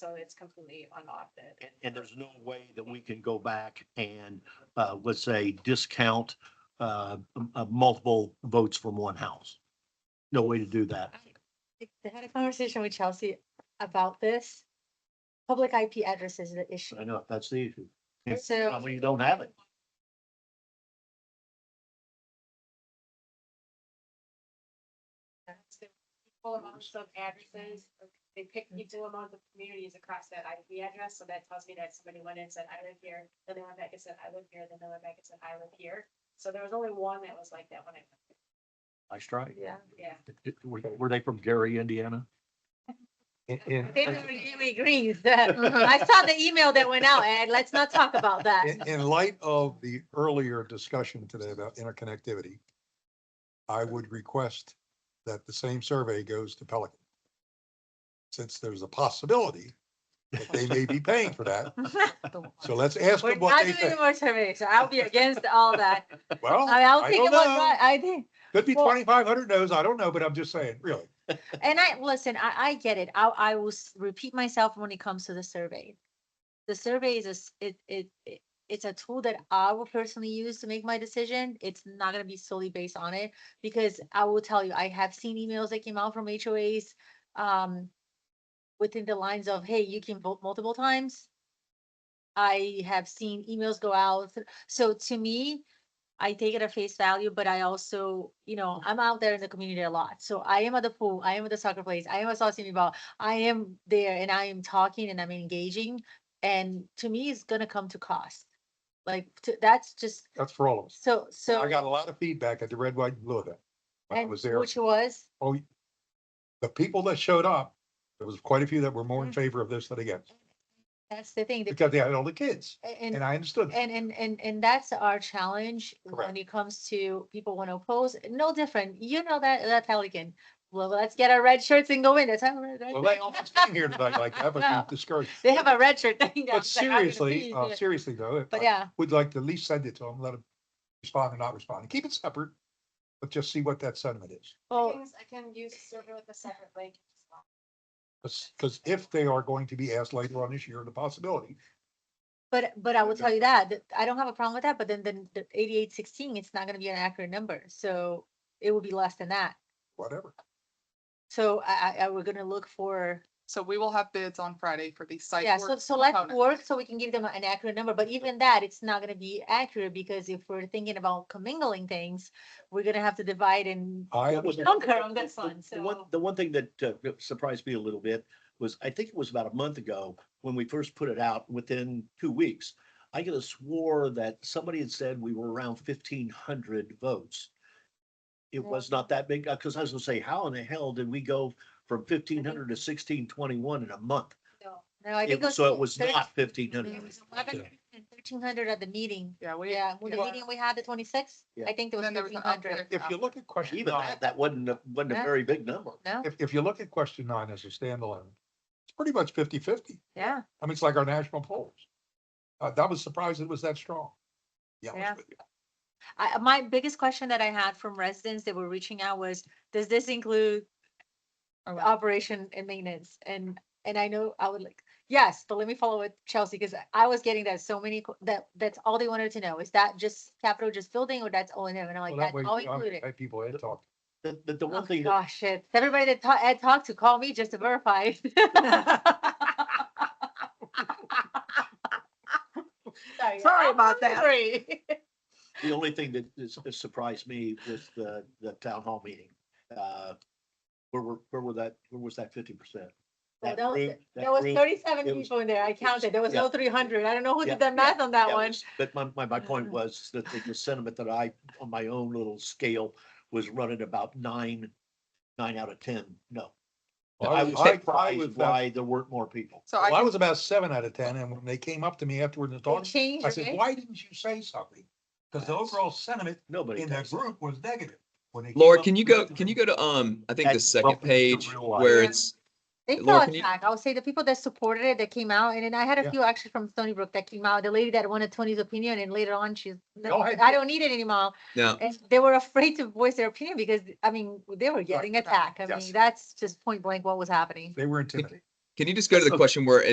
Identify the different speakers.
Speaker 1: so it's completely unaudited.
Speaker 2: And, and there's no way that we can go back and, uh, let's say, discount, uh, m- uh, multiple votes from one house. No way to do that.
Speaker 3: I had a conversation with Chelsea about this. Public IP address is the issue.
Speaker 2: I know, that's the issue. Yeah.
Speaker 3: So
Speaker 2: Well, you don't have it.
Speaker 1: That's the Full amounts of addresses, they pick equal amount of communities across that IP address, so that tells me that somebody went and said, I live here, then they went back and said, I live here, then they went back and said, I live here. So there was only one that was like that when I,
Speaker 2: I strike.
Speaker 3: yeah,
Speaker 1: yeah.
Speaker 2: Were, were they from Gary, Indiana?
Speaker 4: Yeah,
Speaker 3: David really agrees that. I saw the email that went out and let's not talk about that.
Speaker 4: in, in light of the earlier discussion today about interconnectivity, I would request that the same survey goes to Pelican. Since there's a possibility that they may be paying for that, so let's ask
Speaker 3: We're
Speaker 4: them what
Speaker 3: not
Speaker 4: they
Speaker 3: doing
Speaker 4: think.
Speaker 3: more surveys. so I'll be against all that.
Speaker 4: Well,
Speaker 3: I- I'll
Speaker 4: I
Speaker 3: think
Speaker 4: don't
Speaker 3: about
Speaker 4: know.
Speaker 3: what I think.
Speaker 4: Could be
Speaker 3: well-
Speaker 4: twenty-five hundred no's, I don't know, but I'm just saying, really.
Speaker 3: And I, listen, I, I get it. I, I will s- repeat myself when it comes to the survey. The survey is a, s- it, it, it- it's a tool that I will personally use to make my decision. It's not gonna be solely based on it. Because I will tell you, I have seen emails that came out from HOAs, um, within the lines of, hey, you can vote multiple times. I have seen emails go out. So to me, I take it at face value, but I also, you know, I'm out there in the community a lot. So I am at the pool, I am at the soccer place, I am at Saucony Ball, I am there and I am talking and I'm engaging. And to me, it's gonna come to cost. Like, to- that's just,
Speaker 4: That's for all of us.
Speaker 3: so, so.
Speaker 4: I got a lot of feedback at the Red, White, and Blue event. When I
Speaker 3: and
Speaker 4: was there,
Speaker 3: Which was,
Speaker 4: oh, the people that showed up, there was quite a few that were more
Speaker 3: Mm.
Speaker 4: in favor of this than against,
Speaker 3: that's the thing. the-
Speaker 4: because they had all the kids,
Speaker 3: And,
Speaker 4: and I understood.
Speaker 3: and, and, and, and that's our challenge
Speaker 4: Correct.
Speaker 3: when it comes to people want to oppose, no different. You know that, that Pelican. Well, let's get our red shirts and go in. That's how. we're gonna
Speaker 4: Well,
Speaker 3: do
Speaker 4: they
Speaker 3: it.
Speaker 4: almost came here tonight like that, but
Speaker 3: No.
Speaker 4: you discouraged.
Speaker 3: They have a red shirt thing. down,
Speaker 4: But
Speaker 3: it's like, I'm gonna
Speaker 4: seriously,
Speaker 3: be
Speaker 2: oh,
Speaker 4: uh,
Speaker 3: there.
Speaker 4: seriously though,
Speaker 3: But
Speaker 4: I
Speaker 3: yeah,
Speaker 4: would like to at least send it to them, let them respond or not respond, keep it separate. But just see what that sentiment is,
Speaker 3: well,
Speaker 1: Things I can use server with a separate link.
Speaker 4: because, if they are going to be asked later on this year, the possibility.
Speaker 3: but, but I will tell you that, that I don't have a problem with that, but then, then the eighty-eight sixteen, it's not gonna be an accurate number, so it will be less than that.
Speaker 4: Whatever,
Speaker 3: So I, I, I, we're gonna look for
Speaker 5: So we will have bids on Friday for the site.
Speaker 3: Yeah, so,
Speaker 5: work
Speaker 3: so let's
Speaker 5: component.
Speaker 3: work so we can give them an accurate number, but even that, it's not gonna be accurate because if we're thinking about commingling things, we're gonna have to divide and
Speaker 4: I,
Speaker 2: That was-
Speaker 3: conquer on this
Speaker 2: The-
Speaker 3: one,
Speaker 2: The one,
Speaker 3: so.
Speaker 2: the one thing that uh, surprised me a little bit was, I think it was about a month ago, when we first put it out, within two weeks, I could have swore that somebody had said we were around fifteen hundred votes. It
Speaker 3: Yeah.
Speaker 2: was not that big, because I was gonna say, how in the hell did we go from fifteen hundred to sixteen twenty-one in a month?
Speaker 1: No,
Speaker 3: No, I
Speaker 2: It
Speaker 3: think
Speaker 2: was- So it was not fifteen hundred.
Speaker 3: Thirteen hundred at the meeting,
Speaker 5: Yeah, we.
Speaker 3: yeah, with the meeting we had, the twenty-sixth,
Speaker 2: Yeah.
Speaker 3: I think there was
Speaker 5: Then there was
Speaker 3: thirteen
Speaker 5: an
Speaker 3: hundred.
Speaker 5: upgrade.
Speaker 4: if you look at question
Speaker 2: Even
Speaker 4: nine,
Speaker 2: that, that wasn't, a- wasn't a
Speaker 3: Yeah.
Speaker 2: very big number.
Speaker 3: No,
Speaker 4: if, if you look at question nine as a standalone, it's pretty much 50-50.
Speaker 3: yeah,
Speaker 4: I mean, it's like our national polls. Uh, that was surprised it was that strong. Yeah.
Speaker 3: Yeah. I, my biggest question that I had from residents that were reaching out was, does this include
Speaker 5: Oh, wow.
Speaker 3: operation and maintenance and and I know I would like, yes, but let me follow with Chelsea because I was getting that so many que- that that's all they wanted to know. Is that just capital just building or that's all in it? And I'm like,
Speaker 4: Well, that
Speaker 3: that's
Speaker 4: way,
Speaker 3: all
Speaker 4: you know,
Speaker 3: included.
Speaker 4: hey, people had talked.
Speaker 2: The, the, the
Speaker 3: Oh,
Speaker 2: one thing, that-
Speaker 3: Gosh, shit. Everybody that ta- Ed talked to call me just to verify.
Speaker 5: Sorry about that.
Speaker 3: Sorry.
Speaker 2: the only thing that is- that surprised me was the, the town hall meeting. Uh, Where were, where were that, where was that fifty percent?
Speaker 3: Well,
Speaker 2: That
Speaker 3: that was-
Speaker 2: group- that
Speaker 3: There was
Speaker 2: group-
Speaker 3: thirty-seven
Speaker 2: it was-
Speaker 3: people in there. I counted. There was
Speaker 2: yeah.
Speaker 3: no three hundred. I don't know who
Speaker 2: Yeah,
Speaker 3: did the math on that
Speaker 2: that
Speaker 3: one.
Speaker 2: was- But my, my, my point was that the- the sentiment that I, on my own little scale, was running about nine, nine out of ten, no.
Speaker 4: Well,
Speaker 2: I was surprised
Speaker 4: about-
Speaker 2: why there weren't more people.
Speaker 5: So I
Speaker 4: Well, I
Speaker 5: can,
Speaker 4: was about seven out of ten, and when they came up to me afterward and
Speaker 3: They
Speaker 4: talked,
Speaker 3: changed,
Speaker 4: I said,
Speaker 3: right?
Speaker 4: why didn't you say something? Because the overall sentiment
Speaker 2: Nobody.
Speaker 4: in that
Speaker 2: does that.
Speaker 4: group was negative. When they came
Speaker 6: Laura,
Speaker 4: up
Speaker 6: can you
Speaker 4: to me
Speaker 6: go,
Speaker 4: afterward-
Speaker 6: can you go to, um, I
Speaker 2: That-
Speaker 6: think the
Speaker 2: welcome
Speaker 6: second
Speaker 2: to
Speaker 6: page
Speaker 2: real life.
Speaker 6: where
Speaker 5: Yeah.
Speaker 6: it's,
Speaker 3: They
Speaker 6: Laura,
Speaker 3: fell
Speaker 6: can you-
Speaker 3: attack. I would say the people that supported it, that came out, and then I had
Speaker 4: Yeah.
Speaker 3: a few actually from Stony Brook that came out. The lady that wanted Tony's opinion and later on she's,
Speaker 4: They all had-
Speaker 3: I don't need it anymore.
Speaker 6: no,
Speaker 3: And they were afraid to voice their opinion because, I mean, they were getting attacked. I
Speaker 4: Yes.
Speaker 3: mean, that's just point blank what was happening.
Speaker 4: They were intimidated.
Speaker 6: can you just go to the question where